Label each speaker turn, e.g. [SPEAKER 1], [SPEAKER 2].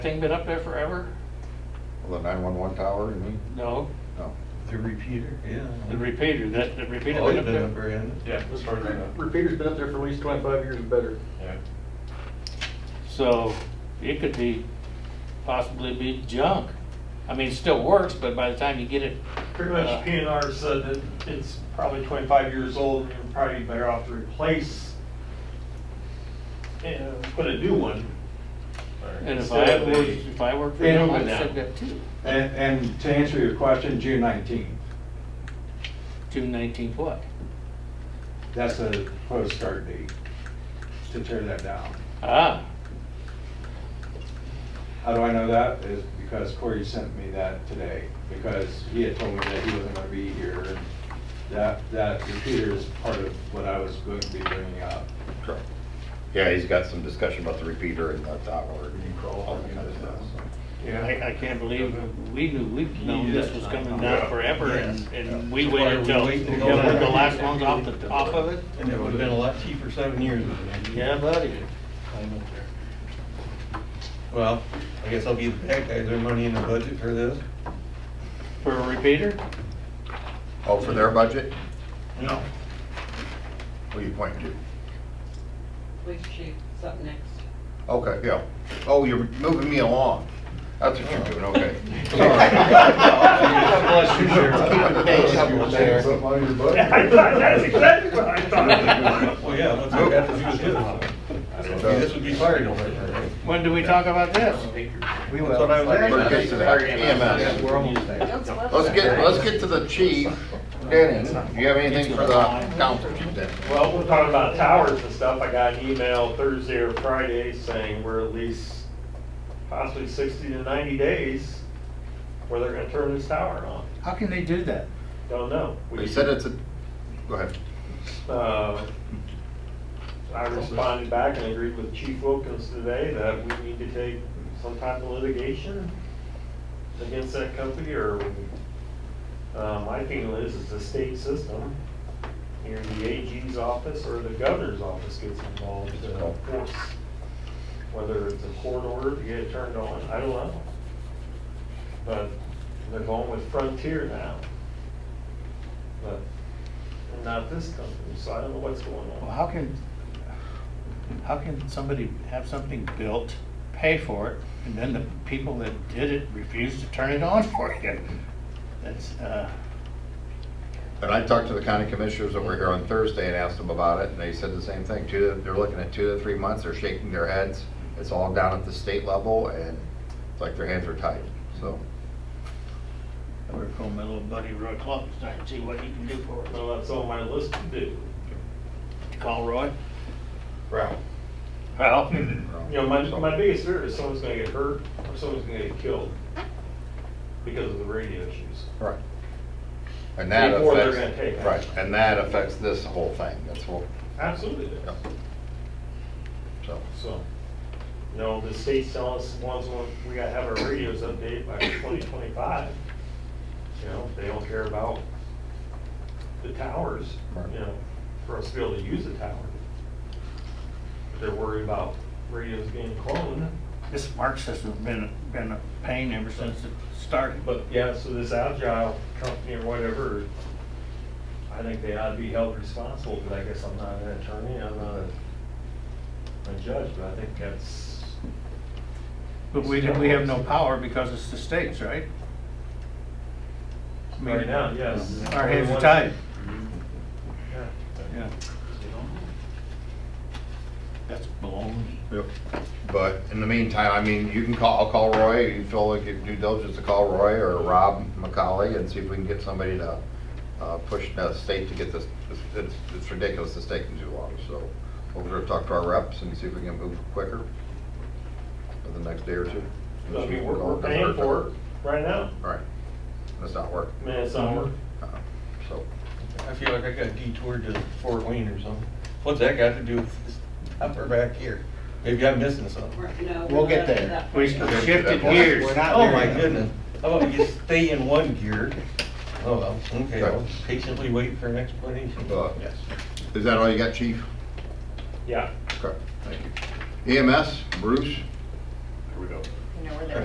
[SPEAKER 1] Thing been up there forever?
[SPEAKER 2] The 911 tower, you mean?
[SPEAKER 1] No,
[SPEAKER 2] No.
[SPEAKER 3] The repeater, yeah.
[SPEAKER 1] the repeater, that, the repeater
[SPEAKER 3] Oh,
[SPEAKER 1] been
[SPEAKER 3] you've
[SPEAKER 1] up
[SPEAKER 3] been up
[SPEAKER 1] there?
[SPEAKER 3] there, haven't you?
[SPEAKER 4] Yeah, as far as I know.
[SPEAKER 5] Repeater's been up there for at least twenty-five years or better.
[SPEAKER 4] Yeah.
[SPEAKER 1] So it could be, possibly be junk. I mean, it still works, but by the time you get it,
[SPEAKER 4] Pretty
[SPEAKER 1] Uh,
[SPEAKER 4] much P and R said that it's probably twenty-five years old and you're probably better off to replace and put a new one.
[SPEAKER 1] and if I,
[SPEAKER 4] Instead of
[SPEAKER 1] were-
[SPEAKER 4] the-
[SPEAKER 1] if I worked for
[SPEAKER 4] They
[SPEAKER 1] them,
[SPEAKER 4] know
[SPEAKER 1] I'd
[SPEAKER 4] now.
[SPEAKER 1] send that too.
[SPEAKER 6] And, and to answer your question, June nineteenth,
[SPEAKER 1] June nineteenth, what?
[SPEAKER 6] that's a proposed start date to tear that down.
[SPEAKER 1] Ah,
[SPEAKER 6] How do I know that? Is because Corey sent me that today, because he had told me that he wasn't gonna be here. and That, that repeater is part of what I was going to be bringing up.
[SPEAKER 2] Correct. Yeah, he's got some discussion about the repeater and the tower and all that kind of stuff. so.
[SPEAKER 1] I, I can't believe we knew, we've known this was coming
[SPEAKER 2] Yeah.
[SPEAKER 1] down forever and,
[SPEAKER 2] Yeah.
[SPEAKER 1] and we
[SPEAKER 3] That's why
[SPEAKER 1] waited
[SPEAKER 3] we
[SPEAKER 1] till,
[SPEAKER 3] waited till-
[SPEAKER 1] till we're the last ones off the, off of it?
[SPEAKER 3] And it would've been a lot cheaper seven years ago.
[SPEAKER 1] Yeah, buddy.
[SPEAKER 3] I'm up there. Well, I guess I'll be the bad guy. Is there money in the budget for this?
[SPEAKER 1] For a repeater?
[SPEAKER 2] Oh, for their budget?
[SPEAKER 3] No.
[SPEAKER 2] What are you pointing to?
[SPEAKER 7] Police chief, is up next.
[SPEAKER 2] Okay, yeah. Oh, you're moving me along. That's what you're doing, okay.
[SPEAKER 3] Bless you,
[SPEAKER 2] Keeping pace.
[SPEAKER 3] Sheriff.
[SPEAKER 4] I thought, that's exactly what I thought.
[SPEAKER 3] Well, yeah, what's that got to do with this? Okay, This would be fire department, right?
[SPEAKER 1] When do we talk about this?
[SPEAKER 3] We will. That's what I was
[SPEAKER 2] Let's get
[SPEAKER 3] asking.
[SPEAKER 2] to that EMS.
[SPEAKER 6] We're almost there.
[SPEAKER 2] Let's get, let's get to the chief. Danny, do you have anything for the council? Chief Denny?
[SPEAKER 4] Well, we're talking about towers and stuff. I got an email Thursday or Friday saying we're at least possibly sixty to ninety days where they're gonna turn this tower on.
[SPEAKER 1] How can they do that?
[SPEAKER 4] Don't know.
[SPEAKER 2] They said it's a, go ahead.
[SPEAKER 4] Uh, I responded back and agreed with Chief Wilkins today that we need to take some type of litigation against that company or, uh, my feeling is it's a state system. Either the AG's office or the governor's office gets involved to enforce, whether it's a court order to get it turned on, I don't know. But they're going with Frontier now. But not this company, so I don't know what's going
[SPEAKER 1] Well,
[SPEAKER 4] on.
[SPEAKER 1] how can, how can somebody have something built, pay for it, and then the people that did it refuse to turn it on for you? That's, uh,
[SPEAKER 2] And I talked to the county commissioners over here on Thursday and asked them about it, and they said the same thing, two, they're looking at two to three months, they're shaking their heads. It's all down at the state level, and it's like their hands are tied, so.
[SPEAKER 1] I would call my little buddy Roy Clark tonight and see what he can do for us.
[SPEAKER 4] Well, that's on my list to do.
[SPEAKER 1] Call Roy?
[SPEAKER 2] Right.
[SPEAKER 1] Well,
[SPEAKER 4] You know, my, my biggest fear is someone's gonna get hurt or someone's gonna get killed because of the radio issues.
[SPEAKER 2] Right. And that
[SPEAKER 4] Before they're
[SPEAKER 2] affects,
[SPEAKER 4] gonna take
[SPEAKER 2] right,
[SPEAKER 4] action.
[SPEAKER 2] and that affects this whole thing, that's what,
[SPEAKER 4] Absolutely. it
[SPEAKER 2] yeah.
[SPEAKER 4] does.
[SPEAKER 2] So,
[SPEAKER 4] So, you know, the state's telling us once, when we gotta have our radios updated by twenty twenty-five. You know, they don't care about the towers,
[SPEAKER 2] Right.
[SPEAKER 4] you know, for us to be able to use the tower. They're worried about radios being cloned.
[SPEAKER 1] this mark system's been, been a pain ever since it started.
[SPEAKER 4] But yeah, so this agile company or whatever, I think they ought to be held responsible, but I guess I'm not an attorney, I'm not a, a judge, but I think that's.
[SPEAKER 1] But we, we have no power because it's the states, right? I mean,
[SPEAKER 4] Right now, yes.
[SPEAKER 1] Our hands are tied,
[SPEAKER 4] Yeah.
[SPEAKER 1] yeah. That's baloney.
[SPEAKER 2] yep. But in the meantime, I mean, you can call, I'll call Roy, you feel like you do diligence to call Roy or Rob McCauley and see if we can get somebody to, uh, push the state to get this, this- it's, it's ridiculous, this taking too long, so. We're gonna talk to our reps and see if we can move quicker for the next day or two.
[SPEAKER 4] I mean, we're, we're paying for it right now,
[SPEAKER 2] Right. That's not working.
[SPEAKER 4] I mean, it's um, not working.
[SPEAKER 1] Mm-hmm.
[SPEAKER 2] Uh, So,
[SPEAKER 3] I feel like I got detoured to Fort Wayne or something. What's that got to do with this upper back here? Maybe I'm missing something.
[SPEAKER 7] We're- no,
[SPEAKER 6] We'll
[SPEAKER 7] we're
[SPEAKER 6] get
[SPEAKER 7] not at
[SPEAKER 6] there.
[SPEAKER 7] that
[SPEAKER 1] We
[SPEAKER 7] point yet.
[SPEAKER 1] shifted
[SPEAKER 2] We're-
[SPEAKER 1] gears.
[SPEAKER 6] we're not-
[SPEAKER 3] Oh, my goodness. How about you stay in one gear? Oh, well, okay, I'll patiently wait for an explanation.
[SPEAKER 2] uh, is that all you got, chief?
[SPEAKER 4] Yeah.
[SPEAKER 2] E Okay, thank you. EMS, Bruce?
[SPEAKER 7] No,
[SPEAKER 8] know where they're